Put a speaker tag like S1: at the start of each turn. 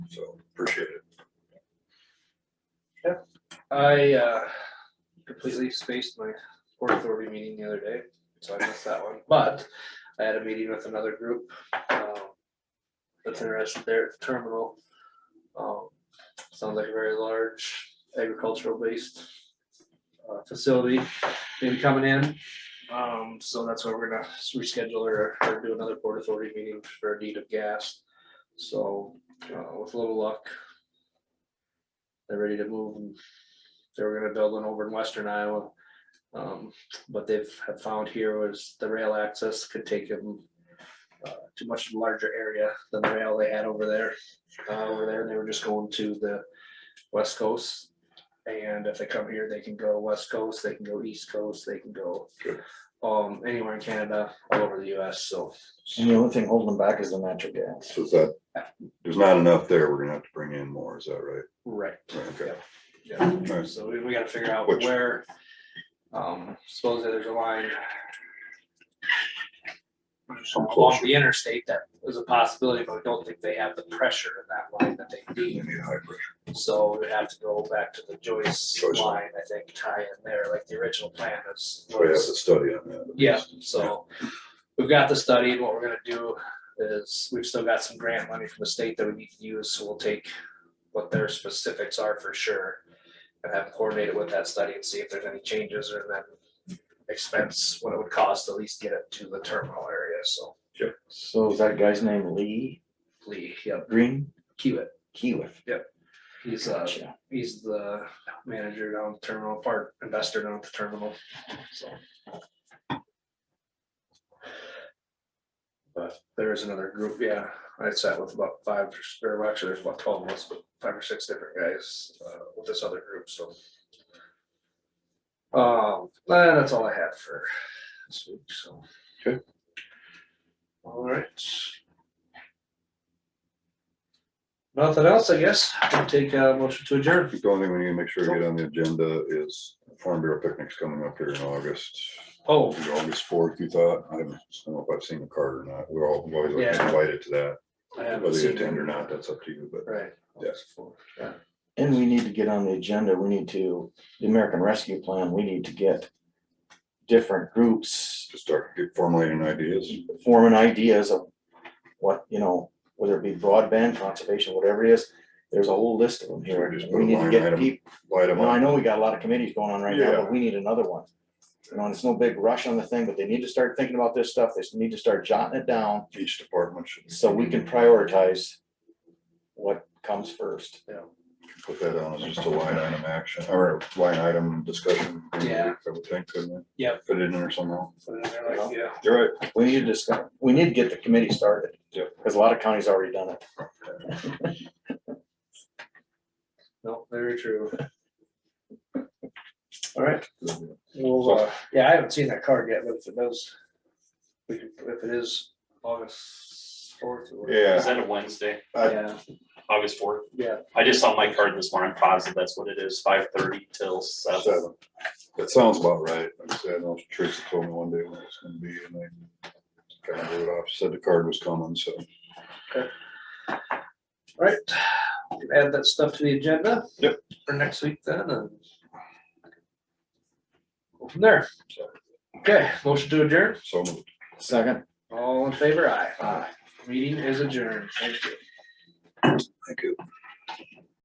S1: so appreciate it.
S2: I uh, completely spaced my Port Authority meeting the other day, so I missed that one, but I had a meeting with another group. um, That's interested there at the terminal. Um, Sounds like a very large agricultural based uh, facility maybe coming in. Um, So that's why we're gonna reschedule or or do another Port Authority meeting for a need of gas. So uh, with a little luck, they're ready to move and they were gonna build one over in western Iowa. Um, what they've have found here was the rail access could take them uh, to much larger area than the rail they had over there. Uh, over there, they were just going to the west coast. And if they come here, they can go west coast, they can go east coast, they can go
S1: Good.
S2: um, anywhere in Canada, all over the US, so.
S3: And the only thing holding them back is the natural gas.
S1: So is that, there's not enough there, we're gonna have to bring in more, is that right?
S2: Right.
S1: Right, Okay.
S2: Yeah.
S1: Nice.
S2: So we, we gotta figure out
S1: Which-
S2: where, um, supposedly there's a line. Along
S1: closer.
S2: the interstate, that is a possibility, but I don't think they have the pressure in that line that they
S1: We
S2: need.
S1: need high pressure.
S2: So we have to go back to the Joyce
S1: Joyce.
S2: line, I think, tie in there, like the original plan is.
S1: Oh, So we have to study on that.
S2: Yeah, so we've got the study, and what we're gonna do is, we've still got some grant money from the state that we need to use, so we'll take what their specifics are for sure. And have coordinated with that study and see if there's any changes or then expense, what it would cost to at least get it to the terminal area, so.
S3: So is that guy's name Lee
S2: Lee, yep,
S3: Green
S2: Kiewit,
S3: Keewiff?
S2: he's uh,
S3: Gotcha.
S2: he's the manager down at the terminal, part investor down at the terminal, so. But there is another group, yeah, I sat with about five, or well, actually, there's about twelve of us, but five or six different guys, uh, with this other group, so. Um, but that's all I had for this week, so.
S1: Okay.
S2: All right. Nothing else, I guess, I'll take a motion to adjourn.
S1: The only thing we need to make sure we get on the agenda is Farm Bureau picnic's coming up here in August.
S2: Oh,
S1: Is it August fourth, you thought? I don't know if I've seen the card or not. We're all, we always like to
S2: Yeah.
S1: invite it to that.
S2: I haven't
S1: Whether you
S2: seen
S1: attend or not, that's up to you, but
S2: Right.
S1: Yes.
S2: Yeah.
S3: And we need to get on the agenda, we need to, the American Rescue Plan, we need to get different groups
S1: to start get formulating ideas.
S3: forming ideas of what, you know, whether it be broadband, conservation, whatever it is, there's a whole list of them here.
S1: We just put
S3: We
S1: a
S3: need to
S1: line
S3: get
S1: item.
S3: people,
S1: Light them
S3: well, I
S1: up.
S3: know we got a lot of committees going on right now,
S1: Yeah.
S3: but we need another one. You know, and it's no big rush on the thing, but they need to start thinking about this stuff, they need to start jotting it down.
S1: Each department should
S3: So we can prioritize what comes first.
S1: put that on as just a line item action or line item discussion.
S2: Yeah.
S1: I would think, couldn't it?
S2: Yep.
S1: Put it in there somehow.
S2: So then they're like, yeah.
S1: You're right.
S3: We need to discuss, we need to get the committee started.
S1: Yep.
S3: Cause a lot of counties already done it.
S2: No, very true. All right. Well, uh, yeah, I haven't seen that card yet, but if it does, we could, if it is August fourth or. whatever.
S4: Is
S1: Yeah,
S4: that a Wednesday,
S1: I-
S2: Yeah,
S4: August fourth?
S2: yeah,
S4: I just saw my card this morning, positive that's what it is, five thirty till seven.
S1: seven. That sounds about right. Like I said, I know Teresa told me one day when it's gonna be and I kind of wrote it off, said the card was coming, so.
S2: all right. We can Add that stuff to the agenda.
S1: Yep.
S2: For next week then and. Go from there. Okay, motion to adjourn.
S1: So
S3: Second.
S2: All in favor, aye.
S3: Aye.
S2: Meeting is adjourned. Thank you.
S1: thank you.